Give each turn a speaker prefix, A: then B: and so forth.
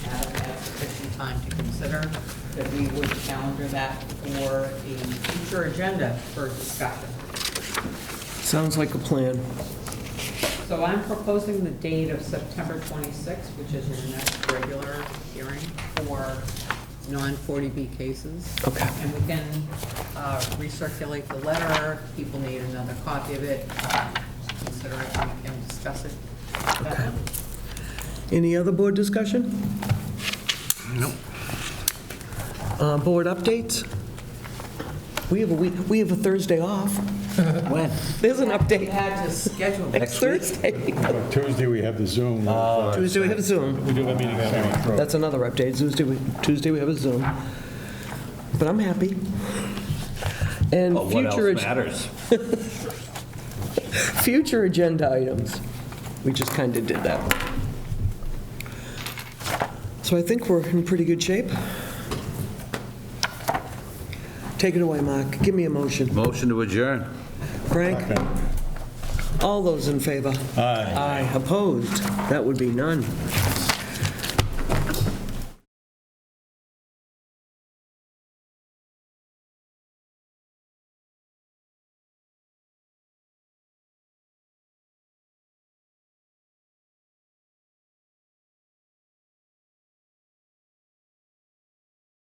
A: time to consider that we would calendar that for a future agenda for discussion.
B: Sounds like a plan.
A: So I'm proposing the date of September 26th, which is your next regular hearing for non-40B cases.
B: Okay.
A: And we can uh, recirculate the letter, people need another copy of it, uh, consider it, we can discuss it.
B: Okay. Any other board discussion? No. Uh, Board updates? We have a week, we have a Thursday off.
C: When?
B: There's an
A: We
B: update
A: had to schedule that.
B: next Thursday.
D: Tuesday, we have the Zoom.
B: Tuesday, we have a Zoom.
D: Uh, We do have a meeting on Zoom.
B: That's another update. Tuesday, we- Tuesday, we have a Zoom. But I'm happy. And
C: Well, what
B: future,
C: else
B: ag-
C: matters?
B: future agenda items. We just kind of did that. So I think we're in pretty good shape. Take it away, Mark. Give me a motion.
C: Motion to adjourn.
B: Frank, all those in favor? Aye. Aye. Opposed? That would be none.